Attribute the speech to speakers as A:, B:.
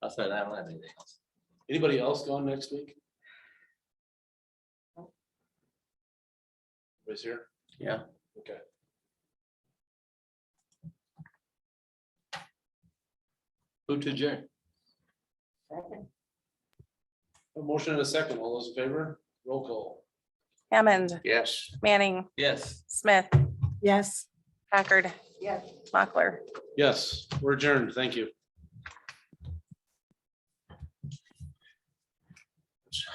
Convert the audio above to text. A: Outside, I don't have anything else.
B: Anybody else going next week? Everybody's here?
A: Yeah.
B: Okay.
A: Who to adjourn?
B: A motion and a second. All those in favor? Roll call.
C: Hammond,
B: Yes.
C: Manning,
A: Yes.
C: Smith,
D: Yes.
C: Packard.
D: Yes.
C: Mochler.
B: Yes, we're adjourned. Thank you.